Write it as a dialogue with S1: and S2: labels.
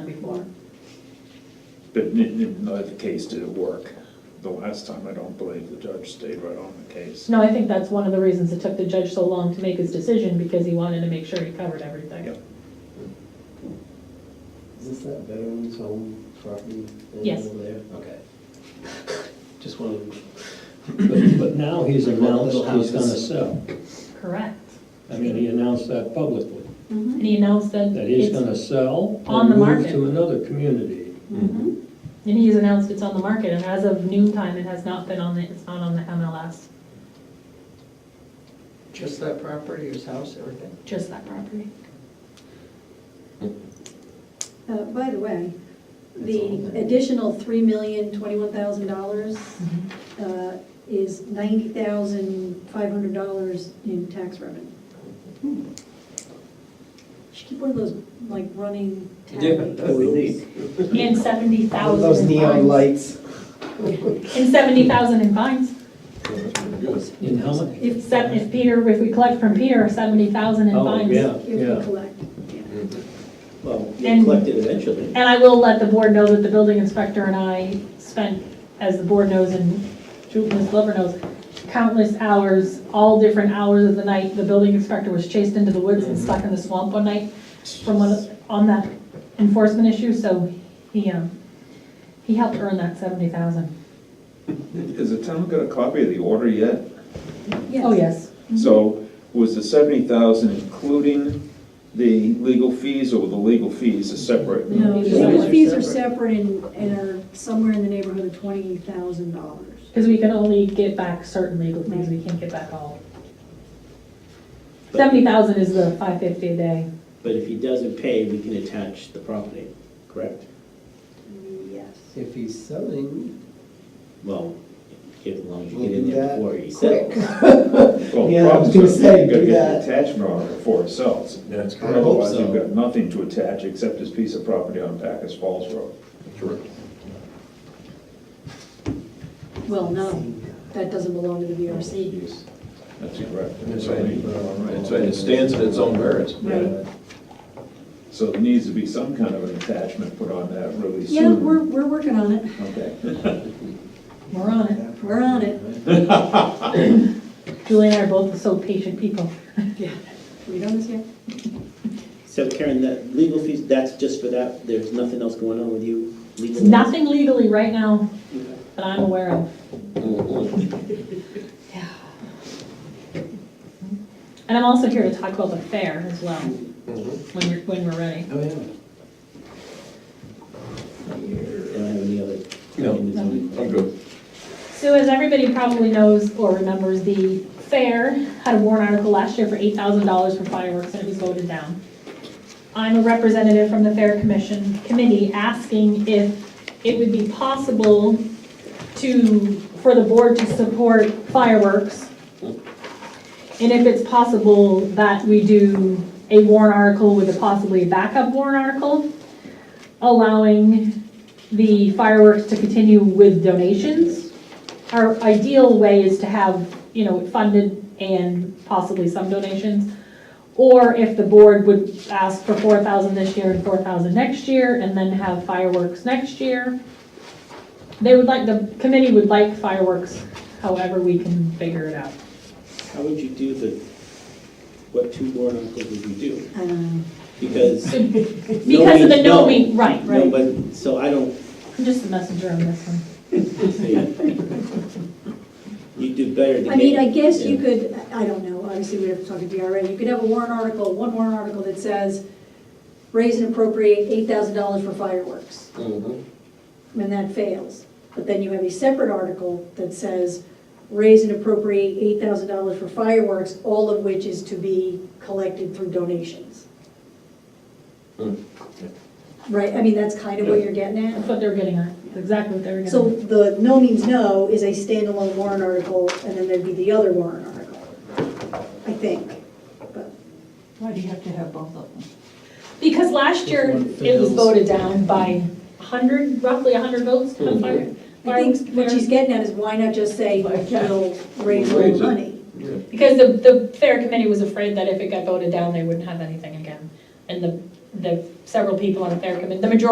S1: before.
S2: But in, in neither case did it work. The last time, I don't believe the judge stayed right on the case.
S1: No, I think that's one of the reasons it took the judge so long to make his decision, because he wanted to make sure he covered everything.
S2: Yep.
S3: Is this that veterans home property thing
S1: Yes.
S3: over there? Okay. Just wanted, but, but now he's announced
S4: Little
S3: he's gonna
S4: houses.
S3: sell.
S1: Correct.
S3: I mean, he announced that publicly,
S1: And he announced that
S3: that he's
S1: it's,
S3: gonna
S1: and
S3: sell
S1: on the
S3: and move
S1: market.
S3: to another community.
S4: Mhm.
S1: he's announced it's on the market, and as of noon time, it has not been on the, it's not on the MLS,
S4: Just that property, his house, everything?
S1: just that property.
S5: Uh, By the way,
S4: all
S5: the
S4: there.
S5: additional three million, twenty-one thousand dollars uh, is ninety thousand, five hundred dollars in tax revenue. Hmm. Should keep one of those, like, running tabs.
S1: And seventy thousand in
S6: All
S1: fines.
S6: those neon lights.
S1: And seventy thousand in fines.
S3: In how much?
S1: If seven, if Peter, if we collect from Peter, seventy thousand in
S3: Oh,
S1: fines.
S3: yeah,
S5: If we
S3: yeah.
S5: collect, yeah.
S6: Well,
S1: And-
S6: you collect it eventually.
S1: And I will let the board know that the building inspector and I spent, as the board knows and Drew, Ms. Glover knows, countless hours, all different hours of the night. The building inspector was chased into the woods and stuck in the swamp one night from one, on that enforcement issue, so he, um, he helped earn that seventy thousand.
S2: Has the town got a copy of the order yet?
S5: Mm-hmm.
S1: Oh, yes.
S2: So was the seventy thousand including the legal fees or the legal fees are separate?
S5: No,
S1: These are
S5: legal fees are
S4: separate.
S5: separate and and are somewhere in the neighborhood of twenty thousand dollars.
S1: Because we can only get back certain legal fees, we can't get back all. Seventy thousand is the five fifty a day.
S6: But if he doesn't pay, we can attach the property, correct?
S5: Yes.
S4: If he's selling.
S6: Well, get as long as you
S4: We'll
S6: get in
S4: do
S6: there
S4: that
S6: before he sells.
S2: Well,
S4: Yeah, I was
S2: probably so.
S4: gonna say,
S2: You've got to
S4: do
S2: get
S4: that.
S2: the attachment on it before it sells.
S7: That's correct.
S4: I hope
S2: Otherwise,
S4: so.
S2: you've got nothing to attach except this piece of property on Packers Falls Road.
S5: Well, no, that doesn't belong to the VRC.
S2: That's correct.
S7: That's right. That's right, it stands in its own merits.
S5: Right.
S2: So there needs to be some kind of an attachment put on that really soon.
S5: Yeah, we're, we're working on it.
S2: Okay.
S1: We're on it.
S5: We're on it.
S1: Julie and I are both so patient people.
S5: Yeah. We done this yet?
S6: So Karen, that legal fees, that's just for that, there's nothing else going on with you
S1: It's
S6: legally?
S1: nothing legally right now that I'm aware of. Yeah. And I'm also here to talk about the fair as well, when we're, when we're ready.
S4: Oh, yeah.
S6: They Don't have any other?
S7: No.
S6: nothing that's on-
S7: I'm good.
S1: So as everybody probably knows or remembers, the fair had a warrant article last year for eight thousand dollars for fireworks and it was voted down. I'm a representative from the Fair Commission Committee asking if it would be possible to, for the board to support fireworks. And if it's possible that we do a warrant article with a possibly backup warrant article, allowing the fireworks to continue with donations our ideal way is to have, you know, it funded and possibly some donations. Or if the board would ask for four thousand this year and four thousand next year, and then have fireworks next year. They would like, the committee would like fireworks, however we can figure it out.
S6: How would you do the, what two warrant articles would you do?
S5: I don't know.
S6: Because.
S1: Because of the no mean, right,
S6: No,
S1: right,
S6: but, so I don't
S1: I'm just the messenger on this one.
S6: see. You do better than.
S5: I mean, I guess you could, I don't know, obviously we'd have to talk to DRA. You could have a warrant article, one warrant article that says, raise and appropriate eight thousand dollars for fireworks.
S7: Uh-huh.
S5: And that fails. But then you have a separate article that says, raise and appropriate eight thousand dollars for fireworks, all of which is to be collected through donations. Right, I mean, that's kind of what you're getting at.
S1: That's what they were getting at, That's exactly what they were
S5: So
S1: getting at.
S5: the no means no is a standalone warrant article, and then there'd be the other warrant article, I think. But
S8: Why do you have to have both of them?
S1: Because last year, it was voted down by a hundred, roughly a hundred votes to the fire.
S5: I think what
S1: fair.
S5: she's getting at is why not just say, we'll raise all
S7: Raise
S5: the
S7: it.
S5: money?
S1: Because the, the fair committee was afraid that if it got voted down, they wouldn't have anything again. And the, the several people on the fair committee, the majority